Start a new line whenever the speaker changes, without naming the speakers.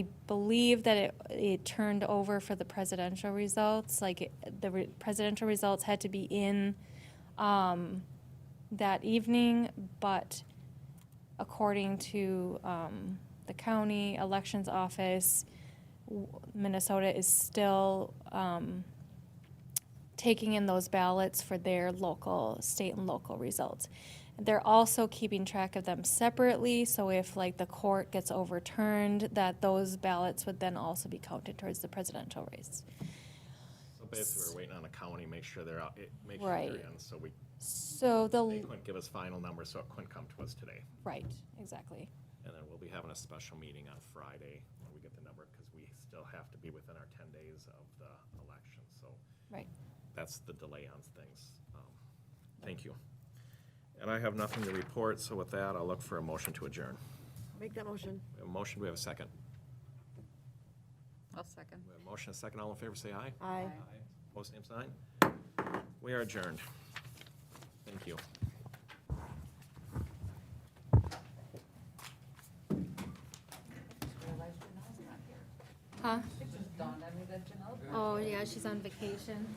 I believe that it, it turned over for the presidential results, like, it- the re- presidential results had to be in, um, that evening, but according to, um, the county elections office, w- Minnesota is still, um, taking in those ballots for their local, state and local results. They're also keeping track of them separately, so if like the court gets overturned, that those ballots would then also be counted towards the presidential race.
So basically, we're waiting on a county, make sure they're out, it- make sure
Right.
they're in, so we,
So
they
the,
couldn't give us final numbers, so it couldn't come to us today.
right, exactly.
And then we'll be having a special meeting on Friday when we get the number, because we still have to be within our ten days of the election, so
Right.
that's the delay on things. Um, Thank you. And I have nothing to report, so with that, I'll look for a motion to adjourn.
Make that motion.
We have a motion, do we have a second?
I'll second.
We have a motion, a second, all in favor, say aye.
Aye.
Opposed, same sign. We are adjourned. Thank you.
Huh?
It just dawned on me that Janelle's
Oh, yeah, she's on vacation.